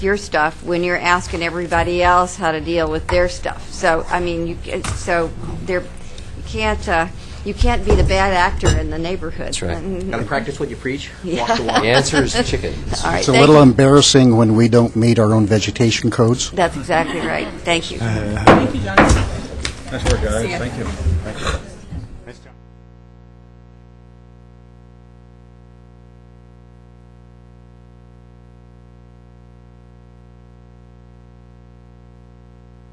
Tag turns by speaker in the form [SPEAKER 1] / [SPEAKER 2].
[SPEAKER 1] your stuff when you're asking everybody else how to deal with their stuff. So, I mean, you, ca- so there, you can't, uh, you can't be the bad actor in the neighborhood.
[SPEAKER 2] That's right.
[SPEAKER 1] Mm,
[SPEAKER 3] Got to practice what you preach, walk the walk.
[SPEAKER 2] The answer is chicken.
[SPEAKER 1] All right,
[SPEAKER 4] It's a
[SPEAKER 1] thank
[SPEAKER 4] little
[SPEAKER 1] you.
[SPEAKER 4] embarrassing when we don't meet our own vegetation codes.
[SPEAKER 1] That's exactly right. Thank you.
[SPEAKER 5] Nice work, guys. Thank you.